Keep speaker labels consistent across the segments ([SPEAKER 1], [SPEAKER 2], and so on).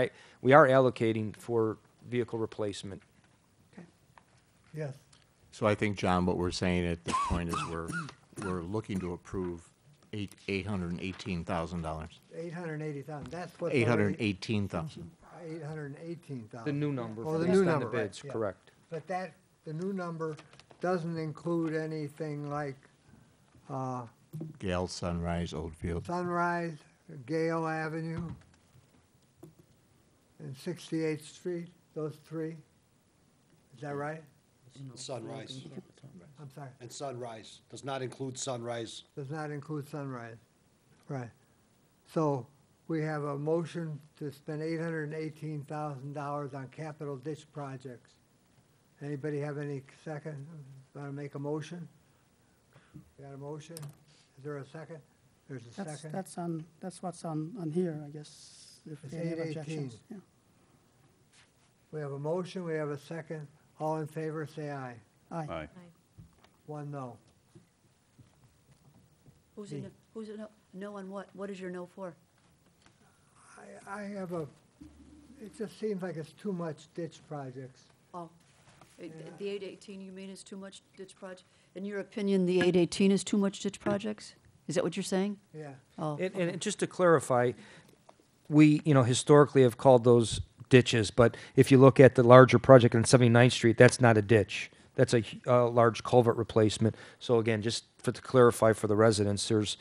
[SPEAKER 1] I- We are allocating for vehicle replacement.
[SPEAKER 2] Yes.
[SPEAKER 3] So I think, John, what we're saying at this point is we're, we're looking to approve eight, eight hundred and eighteen thousand dollars.
[SPEAKER 2] Eight hundred and eighty thousand, that's what's
[SPEAKER 3] Eight hundred and
[SPEAKER 2] already-
[SPEAKER 3] eighteen thousand.
[SPEAKER 2] 818,000.
[SPEAKER 1] The new number,
[SPEAKER 2] Oh, the
[SPEAKER 1] based
[SPEAKER 2] new
[SPEAKER 1] on the
[SPEAKER 2] number, right,
[SPEAKER 1] bids,
[SPEAKER 2] yeah.
[SPEAKER 1] correct.
[SPEAKER 2] But that, the new number doesn't include anything like uh,
[SPEAKER 3] Gale Sunrise Oldfield.
[SPEAKER 2] Sunrise, Gale Avenue, and 68th Street, those three? Is that right?
[SPEAKER 4] Sunrise,
[SPEAKER 2] I'm sorry,
[SPEAKER 4] and Sunrise, does not include Sunrise.
[SPEAKER 2] does not include Sunrise. Right. So we have a motion to spend $818,000 on capital ditch projects. Anybody have any second, want to make a motion? Got a motion? Is there a second? There's a
[SPEAKER 5] That's,
[SPEAKER 2] second?
[SPEAKER 5] that's on, that's what's on, on here, I guess, if
[SPEAKER 2] It's
[SPEAKER 5] we have
[SPEAKER 2] 818.
[SPEAKER 5] objections. yeah.
[SPEAKER 2] We have a motion, we have a second. All in favor, say aye.
[SPEAKER 5] Aye.
[SPEAKER 2] One no.
[SPEAKER 6] Who's in, who's in, no on what? What is your no for?
[SPEAKER 2] I, I have a, it just seems like it's too much ditch projects.
[SPEAKER 6] Oh, eh, th- the eight eighteen you mean is too much ditch project? In your opinion, the eight eighteen is too much ditch projects? Is that what you're saying?
[SPEAKER 2] Yeah.
[SPEAKER 6] Oh,
[SPEAKER 1] And, and just to clarify, we, you know, historically have called those ditches, but if you look at the larger project on 79th Street, that's not a ditch. That's a, hu- a large culvert replacement. So again, just for, to clarify for the residents, there's,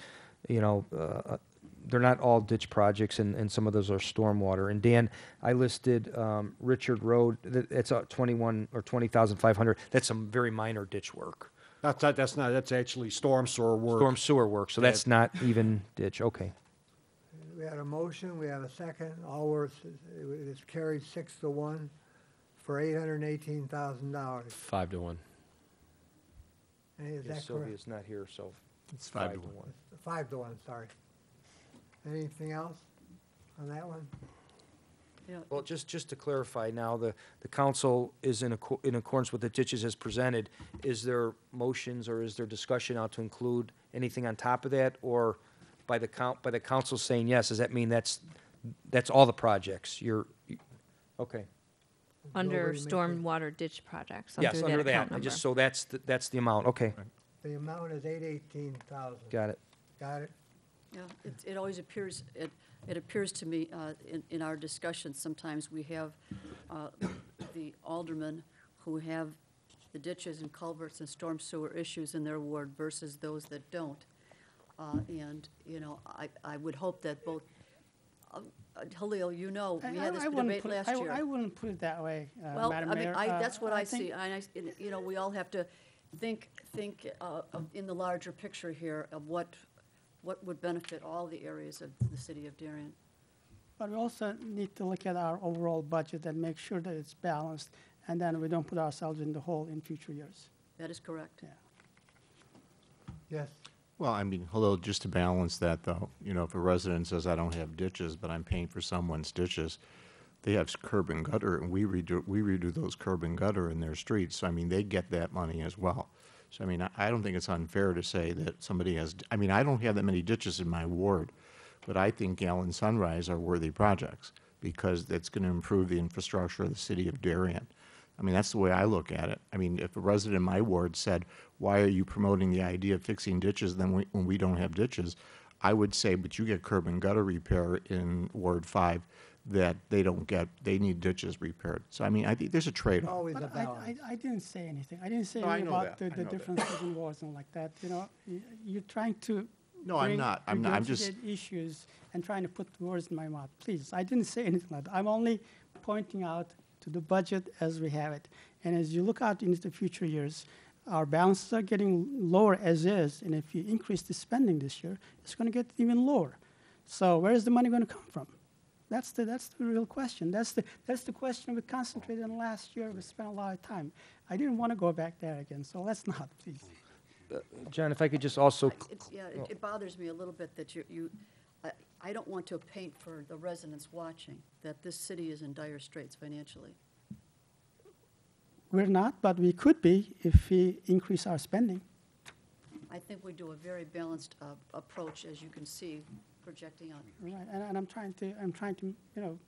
[SPEAKER 1] you know, uh, they're not all ditch projects, and, and some of those are stormwater. And Dan, I listed um, Richard Road, th- it's uh, 21 or 20,500. That's some very minor ditch work,
[SPEAKER 4] That's not, that's not, that's actually storm sewer work.
[SPEAKER 1] storm sewer work, so that's not even ditch, okay.
[SPEAKER 2] We had a motion, we had a second. All were, s- it was it's carried six to one for eight hundred and eighteen thousand dollars.
[SPEAKER 7] Five to one.
[SPEAKER 2] Is
[SPEAKER 1] Yeah,
[SPEAKER 2] that correct?
[SPEAKER 1] Sylvia's not here, so
[SPEAKER 3] It's five to one.
[SPEAKER 2] Five to one, sorry. Anything else on that one?
[SPEAKER 6] you know,
[SPEAKER 1] Well, just, just to clarify now, the, the council is in acco- in accordance with the ditches as presented. Is there motions or is there discussion now to include anything on top of that? Or by the count, by the council saying yes, does that mean that's, that's all the projects? You're, you- okay.
[SPEAKER 8] Under
[SPEAKER 2] Nobody make it.
[SPEAKER 8] stormwater ditch projects,
[SPEAKER 1] Yes, under
[SPEAKER 8] under that
[SPEAKER 1] that.
[SPEAKER 8] account
[SPEAKER 1] I
[SPEAKER 8] number.
[SPEAKER 1] Just, so that's, the- that's the amount, okay,
[SPEAKER 2] The amount is eight eighteen thousand.
[SPEAKER 1] got it.
[SPEAKER 2] Got it?
[SPEAKER 6] Yeah, it, it always appears, it, it appears to me, uh, in, in our discussions, sometimes we have, uh, the aldermen who have the ditches and culverts and storm sewer issues in their ward versus those that don't. Uh, and, you know, I, I would hope that both, uh, uh, Halil, you know,
[SPEAKER 5] I-
[SPEAKER 6] we
[SPEAKER 5] I-
[SPEAKER 6] had this
[SPEAKER 5] I wouldn't
[SPEAKER 6] debate
[SPEAKER 5] put it-
[SPEAKER 6] last
[SPEAKER 5] I
[SPEAKER 6] year.
[SPEAKER 5] w- I wouldn't put it that way, uh,
[SPEAKER 6] Well, I
[SPEAKER 5] Madam
[SPEAKER 6] mean,
[SPEAKER 5] Mayor.
[SPEAKER 6] I,
[SPEAKER 5] Uh,
[SPEAKER 6] that's what I
[SPEAKER 5] think-
[SPEAKER 6] see, and I, s- and, you know, we all have to think, think uh, of- in the larger picture here of what, what would benefit all the areas of the city of Darien.
[SPEAKER 5] But we also need to look at our overall budget and make sure that it's balanced, and then we don't put ourselves in the hole in future years.
[SPEAKER 6] That is correct.
[SPEAKER 5] Yeah.
[SPEAKER 2] Yes.
[SPEAKER 3] Well, I mean, hello, just to balance that though, you know, if a resident says, I don't have ditches, but I'm paying for someone's ditches, they have curb and gutter and we redo, we redo those curb and gutter in their streets. So I mean, they get that money as well. So I mean, I, I don't think it's unfair to say that somebody has, I mean, I don't have that many ditches in my ward, but I think Gale and Sunrise are worthy projects because that's gonna improve the infrastructure of the city of Darien. I mean, that's the way I look at it. I mean, if a resident in my ward said, why are you promoting the idea of fixing ditches then we- when we don't have ditches? I would say, but you get curb and gutter repair in Ward Five that they don't get, they need ditches repaired. So I mean, I think there's a trade-off.
[SPEAKER 2] Always a
[SPEAKER 5] But I,
[SPEAKER 2] balance.
[SPEAKER 5] I, I didn't say anything. I didn't say
[SPEAKER 3] No, I
[SPEAKER 5] anything
[SPEAKER 3] know
[SPEAKER 5] about the,
[SPEAKER 3] that. I
[SPEAKER 5] the
[SPEAKER 3] know that.
[SPEAKER 5] differences in wars and like that, you know? Y- You're trying to.
[SPEAKER 3] No, I'm
[SPEAKER 5] bring
[SPEAKER 3] not. I'm not. I'm just-
[SPEAKER 5] regurgitated Issues and trying to put words in my mouth. Please, I didn't say anything like that. I'm only pointing out to the budget as we have it. And as you look out into the future years, our balances are getting lower as is, and if you increase the spending this year, it's gonna get even lower. So where is the money gonna come from? That's the, that's the real question. That's the, that's the question we concentrated on last year. We spent a lot of time. I didn't want to go back there again, so let's not, please.
[SPEAKER 1] John, if I could just also,
[SPEAKER 6] It's, yeah, it- it bothers me a little bit that you, you, I, I don't want to paint for the residents watching that this city is in dire straits financially.
[SPEAKER 5] We're not, but we could be if we increase our spending.
[SPEAKER 6] I think we do a very balanced uh, approach, as you can see, projecting out.
[SPEAKER 5] Right, and, and I'm trying to, I'm trying to, you know,